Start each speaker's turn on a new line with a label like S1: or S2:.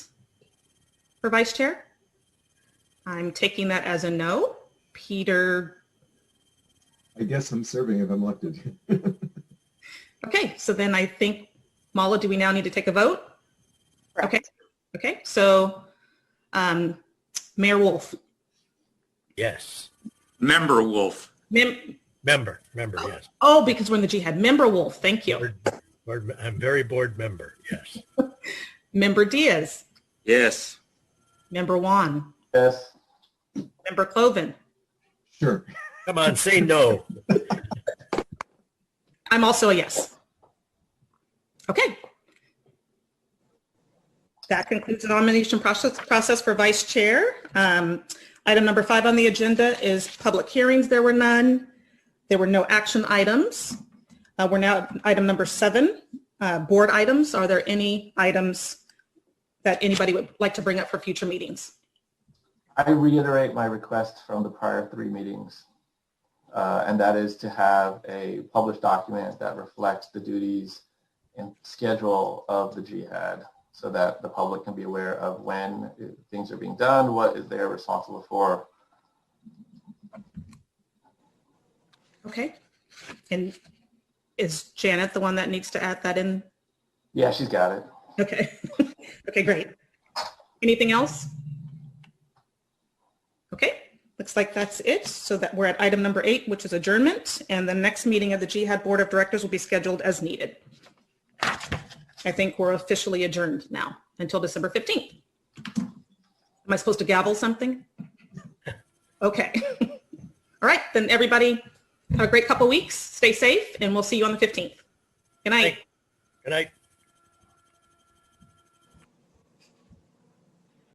S1: for vice chair? I'm taking that as a no. Peter,
S2: I guess I'm serving if I'm elected.
S1: okay, so then I think, Mala, do we now need to take a vote?
S3: Correct.
S1: Okay, okay, so um, Mayor Wolf,
S4: Yes.
S5: Member Wolf.
S1: mem-
S4: Member, member, yes.
S1: oh, because we're in the jihad, member Wolf, thank you.
S4: Board, board, I'm very board member, yes.
S1: Member Diaz,
S5: Yes.
S1: member Juan,
S6: yes,
S1: member Cloven.
S2: Sure.
S4: Come on, say no.
S1: I'm also a yes. Okay. That concludes the nomination process, process for vice chair. Um, item number five on the agenda is public hearings. There were none. There were no action items. Uh, we're now at item number seven, uh, board items. Are there any items that anybody would like to bring up for future meetings?
S6: I reiterate my request from the prior three meetings. uh, And that is to have a published document that reflects the duties and schedule of the jihad so that the public can be aware of when uh, things are being done, what is they're responsible for.
S1: Okay. And is Janet the one that needs to add that in
S6: Yeah, she's got it.
S1: Okay. Okay, great. Anything else? Okay, looks like that's it. So that we're at item number eight, which is adjournment, and the next meeting of the Jihad Board of Directors will be scheduled as needed. I think we're officially adjourned now until December 15th. Am I supposed to gavel something? Okay. All right, then everybody have a great couple weeks. Stay safe and we'll see you on the 15th. Good night.
S4: Good night.